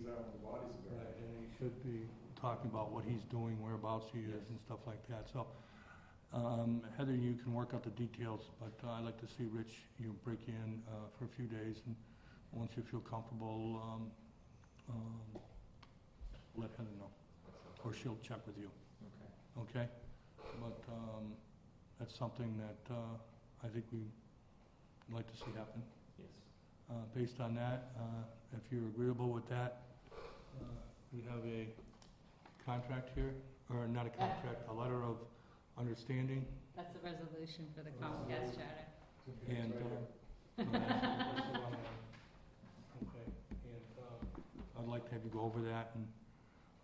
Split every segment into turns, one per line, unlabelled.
body's
Right,
buried.
and he should be talking about what he's doing, whereabouts he is and stuff like that, so. Um, Heather, you can work out the details, but I'd like to see Rich, you break in, uh, for a few days and once you feel comfortable, um, um, let Heather know, or she'll check with you. Okay. Okay? But, um, that's something that, uh, I think we'd like to see happen.
Yes.
Uh, Based on that, uh, if you're agreeable with that, uh, we have a contract here, or not a contract, a letter of understanding.
That's the resolution for the Comcast charter.
And, uh, Okay, and, uh, I'd like to have you go over that and,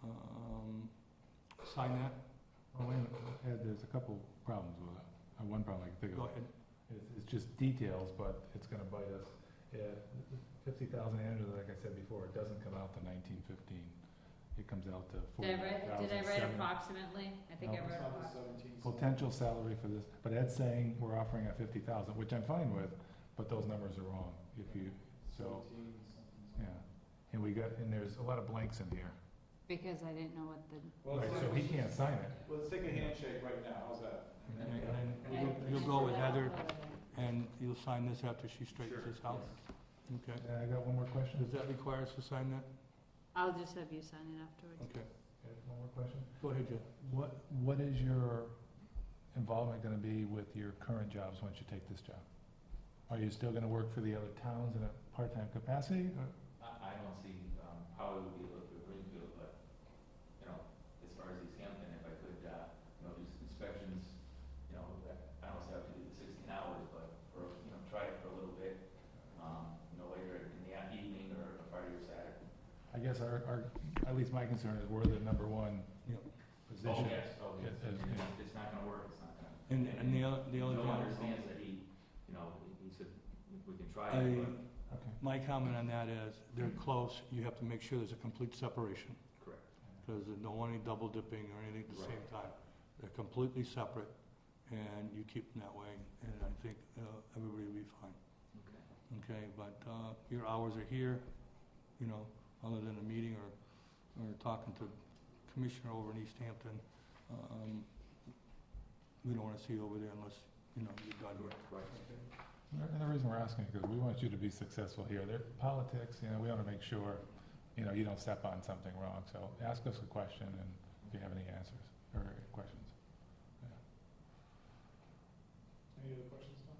um, sign that.
Oh, wait, a minute. Uh, there's a couple problems with it. Uh, One problem I can think
Go
of,
ahead.
it's, it's just details, but it's gonna bite us. Fifty thousand annually, like I said before, it doesn't come out to nineteen fifteen. It comes out to forty
Did I write, did I
thousand
write
seven.
approximately? I think I
No.
wrote
It's not the
approximately.
17, so-
Potential salary for this, but Ed's saying we're offering at fifty thousand, which I'm fine with, but those numbers are wrong if you, so,
17 something,
yeah.
something.
And we got, and there's a lot of blanks in here.
Because I didn't know what the,
Well,
Right,
it's
so
like-
he can't sign it.
Well, let's take a handshake right now, how's that?
And
then-
then
I-
you'll-
I
you'll go
threw
with
that out
Heather
earlier.
and you'll sign this after she straightens
Sure,
this out. Okay.
And I got one more question.
Does that require us to sign that?
I'll just have you sign it afterwards.
Okay.
Ed, One more question.
Go ahead, Jeff.
What, what is your involvement gonna be with your current jobs once you take this job? Are you still gonna work for the other towns in a part-time capacity? or-
I, I don't see, um, how it would be able to Greenfield, but, you know, as far as East Hampton, if I could, uh, you know, do some inspections, you know, I don't say I have to do the sixteen hours, but for, you know, try it for a little bit, um, you know, later in the evening or Friday or Saturday.
I guess our, our, at least my concern is we're the number one
Yep.
position.
Oh, yes, oh, yes,
It- it-
It's- it's not gonna work, it's not gonna.
And, and the other, the other.
Bill
thing-
understands that he, you know, he- he said, we can try
I-
it, but.
Okay.
My comment on that is, they're close, you have to make sure there's a complete separation,
Correct.
because there's no any double dipping or anything at the same
Right.
time. They're completely separate, and you keep them that way, and I think uh, everybody will be fine,
Okay.
okay? But uh, your hours are here, you know, other than a meeting or, or talking to commissioner over in East Hampton. um, We don't want to see you over there unless, you know, you're done.
Right.
And the reason we're asking is because we want you to be successful here. There, politics, you know, we wanna make sure, you know, you don't step on something wrong. So ask us a question and if you have any answers or questions.
Any other questions, Tom?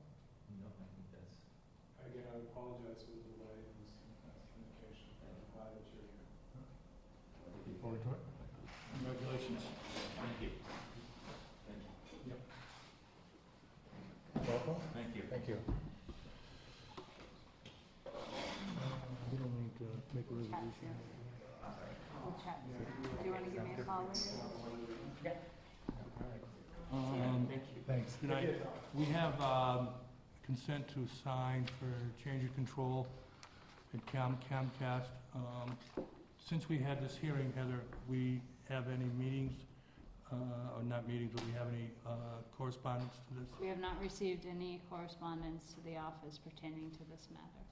No, I think that's.
Again, I apologize for the delay in this uh, communication, I'm glad that you're here.
Look Forward to it.
Congratulations.
Thank you. Thank you.
Welcome.
Thank you.
Thank you.
Um, We don't need to make a resolution.
We'll chat. Do you want to give me a call later?
Um,
Thanks.
Good night. We have um, consent to sign for change of control at Cam- Comcast. Um, Since we had this hearing, Heather, we have any meetings, uh, or not meetings, but we have any uh, correspondence to this?
We have not received any correspondence to the office pertaining to this matter.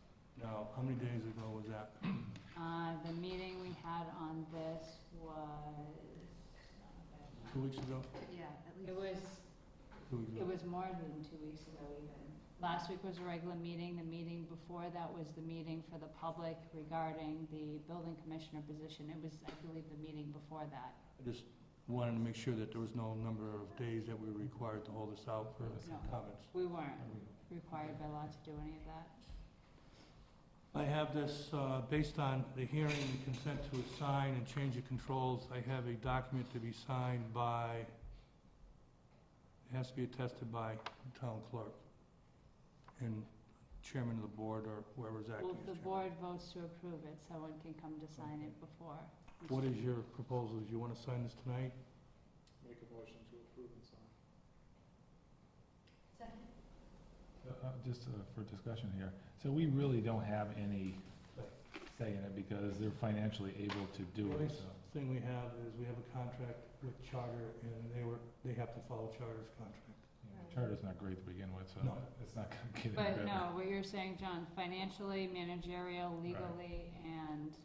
No. How many days ago was that?
Uh, the meeting we had on this was,
Two weeks ago?
yeah, at least. It was
Two weeks ago.
It was more than two weeks ago even. Last week was a regular meeting, the meeting before that was the meeting for the public regarding the building commissioner position. It was, I believe, the meeting before that.
I Just wanted to make sure that there was no number of days that we were required to hold this out for
No.
comments.
We weren't required by law to do any of that.
I have this, uh, based on the hearing and consent to assign and change of controls, I have a document to be signed by, it has to be attested by the town clerk and chairman of the board or whoever's acting as
Well,
chairman.
the board votes to approve it, someone can come to sign it before.
What is your proposal? Do you want to sign this tonight?
Make a motion to approve and sign.
Uh, uh, Just uh, for discussion here, so we really don't have any say in it because they're financially able to do
Well,
it,
it's-
so.
Thing we have is we have a contract with Charter and they were, they have to follow Charter's contract.
you know, Charter's not great to begin with, so
No.
it's not gonna get any better.
But no, what you're saying, John, financially, managerial, legally, and